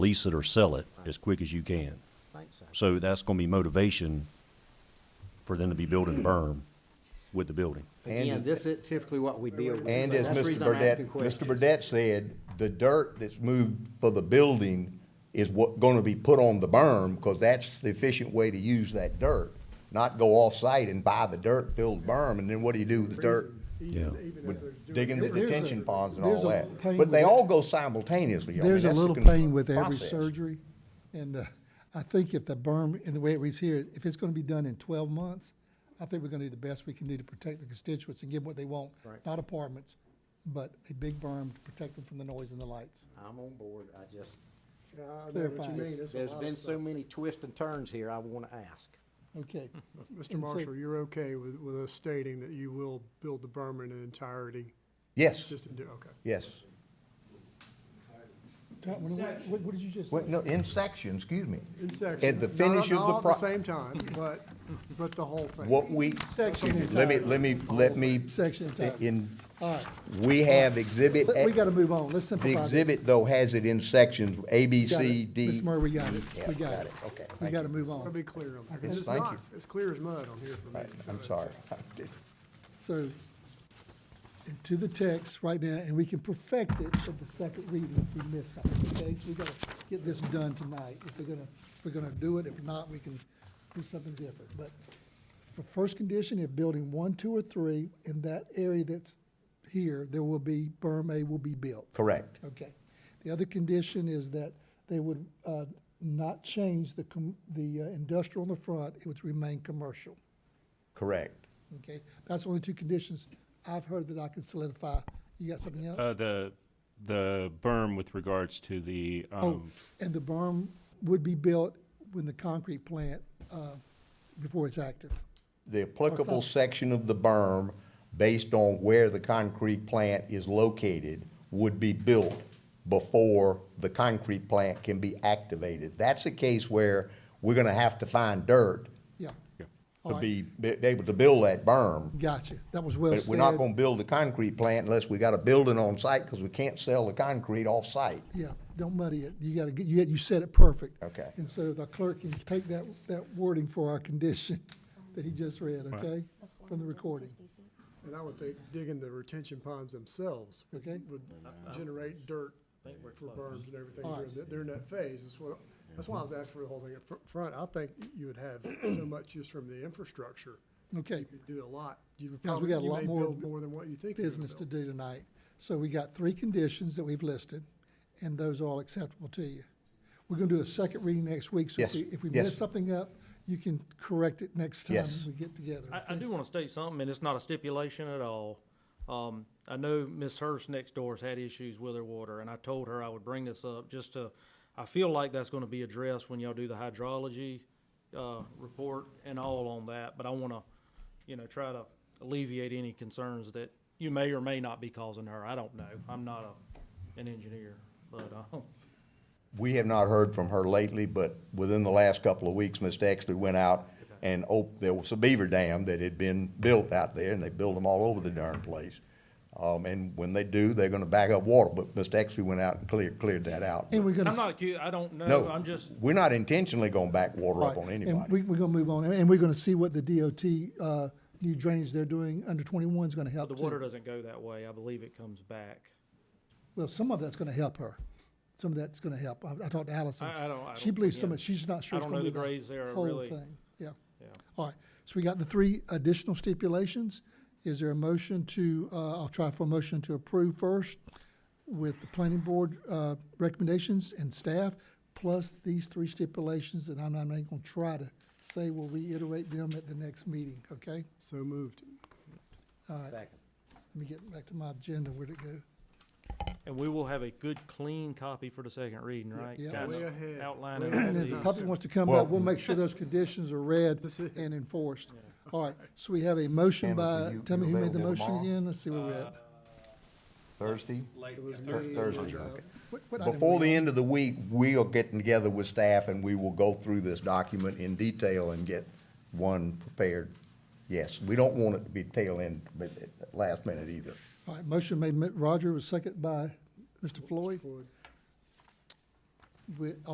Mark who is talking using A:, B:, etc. A: lease it or sell it as quick as you can. So that's gonna be motivation for them to be building a berm with the building.
B: Again,
C: And,
B: this is typically what we deal with.
C: and as
B: That's the
C: Mr.
B: reason I'm asking
C: Burdette, Mr.
B: questions.
C: Burdette said, the dirt that's moved for the building is what, gonna be put on the berm, because that's the efficient way to use that dirt. Not go off-site and buy the dirt, build berm, and then what do you do with the dirt?
D: Even-
A: Yeah.
D: even if there's
C: With
D: doing-
C: digging the
D: There's a-
C: detention ponds and
D: there's
C: all
D: a
C: that.
D: pain
C: But they
D: with-
C: all go simultaneously. I mean,
D: There's a
C: that's the
D: little
C: con-
D: pain with every
C: process.
D: surgery, and uh, I think if the berm, and the way it reads here, if it's gonna be done in twelve months, I think we're gonna do the best we can do to protect the constituents and give them what they want. Not apartments, but a big berm to protect them from the noise and the lights.
B: I'm on board, I just,
D: Yeah, I
E: know what you mean. It's a
B: there's
E: lot of
B: been so
E: stuff.
B: many twists and turns here, I wanna ask.
D: Okay,
E: Mr.
D: And so-
E: Marshall, you're okay with, with us stating that you will build the berm in entirety,
C: Yes,
E: just to do, okay.
C: yes.
D: Tom, what- what, what- what did you just say?
C: Well, no, in sections, excuse me.
E: In
C: At
E: sections,
C: the
E: not,
C: finish of
E: not all
C: the
E: at the
C: pro-
E: same time, but, but the whole thing.
C: What we,
D: Section
C: let me, let me, let me.
D: Section entirely.
C: In,
D: All right,
C: we have exhibit.
D: but
C: A-
D: we gotta move on, let's simplify
C: The
D: this.
C: exhibit, though, has it in sections, A, B,
D: Got it.
C: C, D.
D: Ms. Murray, we got it,
C: Yeah,
D: we got it.
C: Okay.
D: We
C: thank
D: gotta
C: you.
D: move
E: I'll
D: on.
E: be clear on that, 'cause
D: Yes,
E: it's
C: thank
E: not,
C: you.
E: it's clear as mud on here for me.
C: Right,
E: so
C: I'm
E: it's-
C: sorry.
D: So, and to the text right now, and we can perfect it for the second reading if we miss something, okay? So we gotta get this done tonight, if we're gonna, if we're gonna do it, if not, we can do something different. But for first condition, if building one, two, or three, in that area that's here, there will be, berm A will be built.
C: Correct.
D: Okay. The other condition is that they would uh, not change the, com- the uh, industrial on the front, it would remain commercial.
C: Correct.
D: Okay, that's only two conditions I've heard that I can solidify. You got something
F: Uh,
D: else?
F: the, the berm with regards to the,
D: Oh,
F: um,
D: and the berm would be built when the concrete plant, uh, before it's active.
C: The applicable
D: Outside.
C: section of the berm, based on where the concrete plant is located, would be built before the concrete plant can be activated. That's a case where we're gonna have to find dirt
D: Yeah. All
C: to
D: right.
C: be, be able to build that berm.
D: Gotcha. That was well
C: But we're not gonna
D: said.
C: build a concrete plant unless we got a building on site, because we can't sell the concrete off-site.
D: Yeah, don't muddy it. You gotta, get you, you said it perfect.
C: Okay.
D: And so the clerk can take that, that wording for our condition that he just read, okay? From the recording.
E: And I would think digging the retention ponds themselves would
D: Okay.
E: would generate dirt for berms and everything
D: All right.
E: during that, during that phase. That's what, that's why I was asking for the whole thing up fr- front. I think you would have so much just from the infrastructure.
D: Okay.
E: You could do a lot. You would
D: Guys, we
E: probably,
D: got a
E: you
D: lot
E: may
D: more
E: build more than what you think you would
D: business to
E: build.
D: do tonight. So we got three conditions that we've listed, and those are all acceptable to you. We're gonna do a second reading next week, so
C: Yes,
D: if we, if we
C: yes.
D: miss something up, you can correct it next time
C: Yes.
D: we get together.
G: I, I do want to state something, and it's not a stipulation at all. Um, I know Ms. Hurst next door's had issues with her water, and I told her I would bring this up just to, I feel like that's going to be addressed when y'all do the hydrology, uh, report and all on that, but I want to, you know, try to alleviate any concerns that you may or may not be causing her. I don't know. I'm not a, an engineer, but, uh,
C: We have not heard from her lately, but within the last couple of weeks, Ms. Dexter went out and op, there was a beaver dam that had been built out there, and they build them all over the darn place. Um, and when they do, they're gonna back up water, but Ms. Dexter went out and cleared, cleared that out.
D: And we're gonna.
G: I'm not acu- I don't know.
C: No,
G: I'm just,
C: we're not intentionally gonna back water up
D: right,
C: on
D: And we,
C: anybody.
D: we're gonna move on, and we're gonna see what the DOT, uh, new drainage they're doing under twenty-one is gonna help
G: the
D: too.
G: water doesn't go that way. I believe it comes back.
D: Well, some of that's gonna help her. Some of that's gonna help. I, I talked to Allison.
G: I- I don't- I
D: She
G: don't-
D: believes some
G: again,
D: of, she's not sure
G: I
D: it's
G: don't
D: gonna
G: know
D: be
G: the grades there
D: the
G: are
D: whole
G: really-
D: thing. Yeah.
G: Yeah.
D: All right, so we got the three additional stipulations. Is there a motion to, uh, I'll try for a motion to approve first with the planning board, uh, recommendations and staff, plus these three stipulations, and I'm not even gonna try to say, we'll reiterate them at the next meeting, okay?
E: So moved.
B: Second.
D: Let me get back to my agenda, where'd it go?
G: And we will have a good, clean copy for the second reading, right?
D: yeah.
G: Kinda
E: Way ahead,
G: Outlining
E: way
G: all
D: And if
G: these.
D: the public wants to come back, we'll make sure those conditions are read
E: That's it.
D: and enforced. All right, so we have a motion
C: Cameron,
D: by,
C: will you-
D: tell me
C: you
D: who made the
C: available
D: motion
C: tomorrow? Uh,
D: again, let's see where we're at.
C: Thursday?
E: It was
C: Thur-
E: me, uh,
C: Thursday,
E: Roger.
C: okay.
D: What- what item
C: Before
D: were
C: the
D: we on?
C: end of the week, we are getting together with staff and we will go through this document in detail and get one prepared. Yes, we don't want it to be tail end, but at last minute either.
D: All right, motion made, Mi- Roger was second by Mr. Floyd.
E: Floyd.
D: with,